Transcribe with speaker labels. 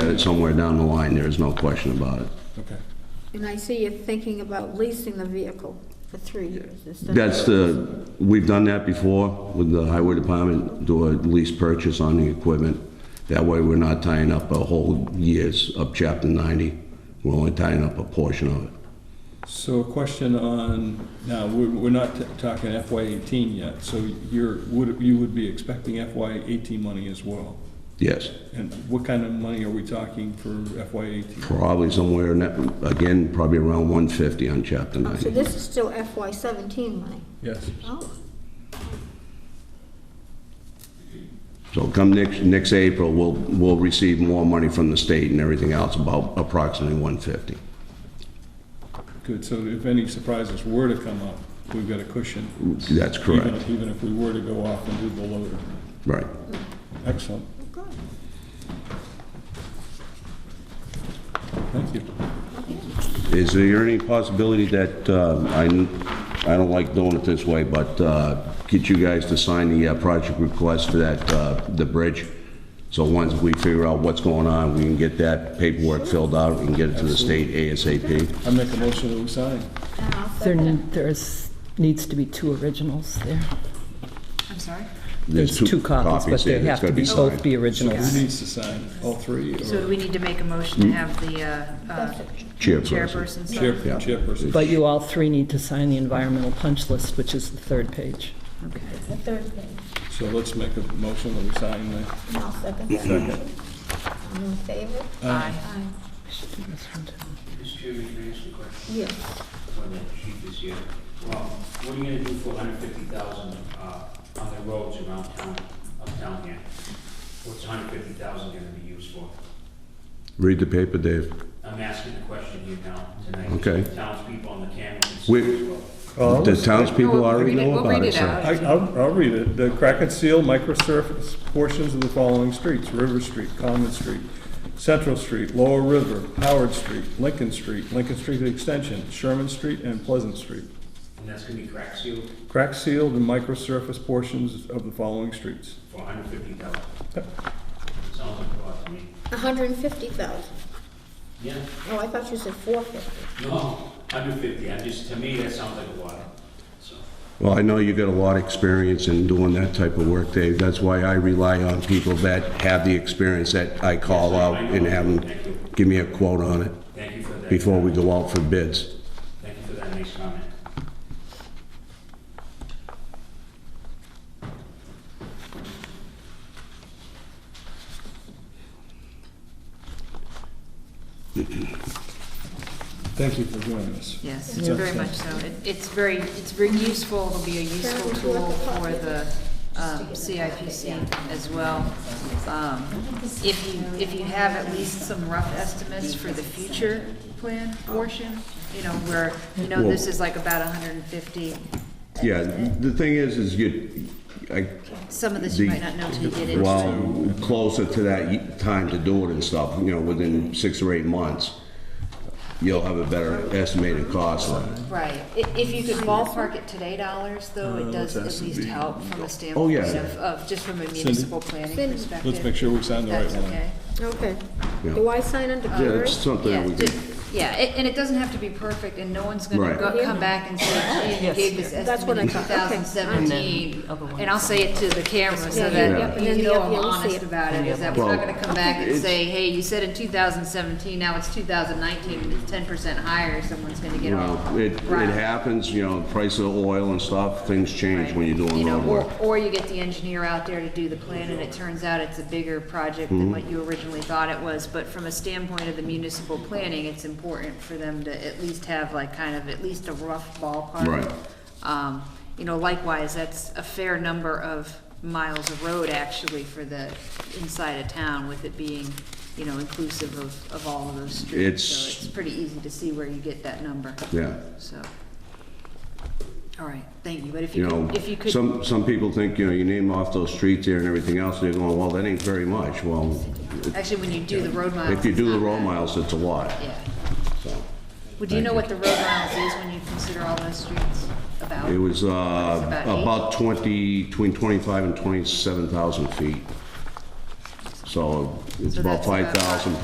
Speaker 1: at it uh, somewhere down the line, there is no question about it.
Speaker 2: Okay.
Speaker 3: And I see you're thinking about leasing the vehicle for three years instead of...
Speaker 1: That's the, we've done that before with the highway department, do a lease purchase on the equipment. That way, we're not tying up a whole year's of chapter 90. We're only tying up a portion of it.
Speaker 2: So a question on, now, we're, we're not t- talking FY eighteen yet, so you're, would, you would be expecting FY eighteen money as well?
Speaker 1: Yes,
Speaker 2: And what kind of money are we talking for FY eighteen?
Speaker 1: probably somewhere, in that- again, probably around 150 on chapter
Speaker 3: Oh,
Speaker 1: 90.
Speaker 3: So this is still FY seventeen money?
Speaker 2: Yes.
Speaker 3: Oh,
Speaker 1: So come next, next April, we'll, we'll receive more money from the state and everything else, about approximately 150.
Speaker 2: Good, so if any surprises were to come up, we've got a cushion.
Speaker 1: That's correct,
Speaker 2: Even, even if we were to go off and do the loader.
Speaker 1: right.
Speaker 2: Excellent,
Speaker 4: Oh,
Speaker 3: good.
Speaker 2: thank you.
Speaker 1: Is there any possibility that, um, I I don't like doing it this way, but uh, get you guys to sign the uh, project request for that, uh, the bridge? So once we figure out what's going on, we can get that paperwork filled out and get it to the state ASAP?
Speaker 2: I make a motion that we sign.
Speaker 3: And I'll
Speaker 5: There,
Speaker 3: second it.
Speaker 5: there's, needs to be two originals there.
Speaker 4: I'm sorry?
Speaker 5: There's two copies, but
Speaker 1: here
Speaker 5: they
Speaker 1: that's
Speaker 5: have to
Speaker 1: gotta
Speaker 5: be both
Speaker 1: signed.
Speaker 5: be
Speaker 2: So
Speaker 5: originals.
Speaker 2: who needs to sign, all three, or
Speaker 4: So do we need to make a motion
Speaker 1: Hmm?
Speaker 4: to have the uh, uh,
Speaker 1: Chairperson.
Speaker 4: chairperson
Speaker 2: chair,
Speaker 4: sign?
Speaker 1: Yeah.
Speaker 2: chairperson?
Speaker 5: But you all three need to sign the environmental punch list, which is the third page.
Speaker 4: Okay.
Speaker 3: The third page,
Speaker 2: So let's make a motion that we sign the
Speaker 3: and I'll second that. All in favor?
Speaker 4: Aye.
Speaker 3: Aye.
Speaker 6: Mr. Chairman, can I ask you a question
Speaker 3: Yes.
Speaker 6: on that sheet this year? Well, what are you gonna do for hundred fifty thousand, uh, on the roads around town, uptown here? What's hundred fifty thousand gonna be used for?
Speaker 1: Read the paper, Dave.
Speaker 6: I'm asking the question here now, tonight.
Speaker 1: Okay.
Speaker 6: Townspeople on the cameras. and
Speaker 1: We-
Speaker 6: stuff as well.
Speaker 1: The townspeople
Speaker 4: No, Oh, we'll
Speaker 1: already
Speaker 4: read it-
Speaker 1: know
Speaker 4: we'll
Speaker 1: about
Speaker 4: read
Speaker 1: it, sir.
Speaker 4: out.
Speaker 2: I- I'll, I'll read it. The crack and seal microsurface portions of the following streets, River Street, Common Street, Central Street, Lower River, Howard Street, Lincoln Street, Lincoln Street Extension, Sherman Street, and Pleasant Street.
Speaker 6: And that's gonna be crack sealed
Speaker 2: Crack sealed and microsurface portions of the following streets.
Speaker 6: for hundred fifty thousand.
Speaker 2: Yep.
Speaker 6: Sounds like a lot to me.
Speaker 3: A hundred and fifty thousand.
Speaker 6: Yeah,
Speaker 3: Oh, I thought you said four fifty.
Speaker 6: no, hundred fifty, I just, to me, that sounds like a lot, so.
Speaker 1: Well, I know you got a lot of experience in doing that type of work, Dave. That's why I rely on people that have the experience that I call out and have them give me a quote on it
Speaker 6: Thank you for that.
Speaker 1: before we go out for bids.
Speaker 6: Thank you for that nice comment.
Speaker 2: Thank you for joining us.
Speaker 4: Yes, very much so. It- It's very, it's very useful, it'll be a useful tool for the um, CIPC as well. Um, If you, if you have at least some rough estimates for the future plan portion, you know, where, you know, this is like about 150,
Speaker 1: Yeah, the thing is, is you, I,
Speaker 4: some of this
Speaker 1: the-
Speaker 4: you might not know till you get into it.
Speaker 1: well, closer to that time to do it and stuff, you know, within six or eight months, you'll have a better estimated cost on it.
Speaker 4: Right, I- if you could ballpark it today dollars, though,
Speaker 2: Uh,
Speaker 4: it does at least help from a standpoint
Speaker 1: yeah.
Speaker 4: of, of, just from a municipal planning
Speaker 3: Cindy.
Speaker 4: perspective.
Speaker 2: Oh, Let's make sure we sign the right
Speaker 4: That's
Speaker 2: one.
Speaker 4: okay.
Speaker 3: Okay.
Speaker 1: Yeah.
Speaker 3: Do I sign under
Speaker 1: Yeah,
Speaker 3: Carrie?
Speaker 1: that's something that
Speaker 4: Yeah,
Speaker 1: we
Speaker 4: ju-
Speaker 1: can,
Speaker 4: yeah, it- and it doesn't have to be perfect, and no one's gonna
Speaker 1: Right.
Speaker 4: go- come back and say, gee, you
Speaker 5: Yes.
Speaker 4: gave this
Speaker 3: Oh, That's what
Speaker 4: estimate
Speaker 3: I
Speaker 4: in two
Speaker 3: thought. Okay.
Speaker 4: thousand seventeen. And I'll say it to the camera
Speaker 3: Yeah,
Speaker 4: so
Speaker 3: yeah,
Speaker 1: yeah.
Speaker 4: that
Speaker 3: And then
Speaker 4: you
Speaker 3: the
Speaker 4: know
Speaker 3: other-
Speaker 4: I'm
Speaker 3: yeah, we'll see
Speaker 4: honest
Speaker 3: it.
Speaker 4: about it, is that we're
Speaker 1: Well,
Speaker 4: not gonna come back and
Speaker 1: it's-
Speaker 4: say, hey, you said in two thousand seventeen, now it's two thousand nineteen, and it's ten percent higher, someone's gonna get all.
Speaker 1: Well, it, it
Speaker 4: riled.
Speaker 1: happens, you know, price of oil and stuff, things change
Speaker 4: Right.
Speaker 1: when you're doing
Speaker 4: You know,
Speaker 1: road
Speaker 4: or-
Speaker 1: work.
Speaker 4: Or you get the engineer out there to do the plan, and it turns out it's a bigger project
Speaker 1: Mm-hmm.
Speaker 4: than what you originally thought it was. But from a standpoint of the municipal planning, it's important for them to at least have like kind of at least a rough ballpark.
Speaker 1: Right.
Speaker 4: Um, You know, likewise, that's a fair number of miles of road actually for the inside of town with it being, you know, inclusive of, of all of those streets. So
Speaker 1: It's-
Speaker 4: it's pretty easy to see where you get that number.
Speaker 1: Yeah.
Speaker 4: So, all right, thank you, but if
Speaker 1: You
Speaker 4: you,
Speaker 1: know,
Speaker 4: could- if you could.
Speaker 1: some, some people think, you know, you name off those streets there and everything else, they're going, well, that ain't very much. Well,
Speaker 4: Actually, when you do the road miles.
Speaker 1: if you do
Speaker 4: it's
Speaker 1: the
Speaker 4: not
Speaker 1: road
Speaker 4: bad.
Speaker 1: miles, it's a lot,
Speaker 4: Yeah.
Speaker 1: so.
Speaker 4: Well, do you know what the road miles is when you consider all those streets about?
Speaker 1: It was, uh,
Speaker 4: It's about eight?
Speaker 1: about twenty, between twenty-five and twenty-seven thousand feet. So it's
Speaker 4: So
Speaker 1: about
Speaker 4: that's about
Speaker 1: five thousand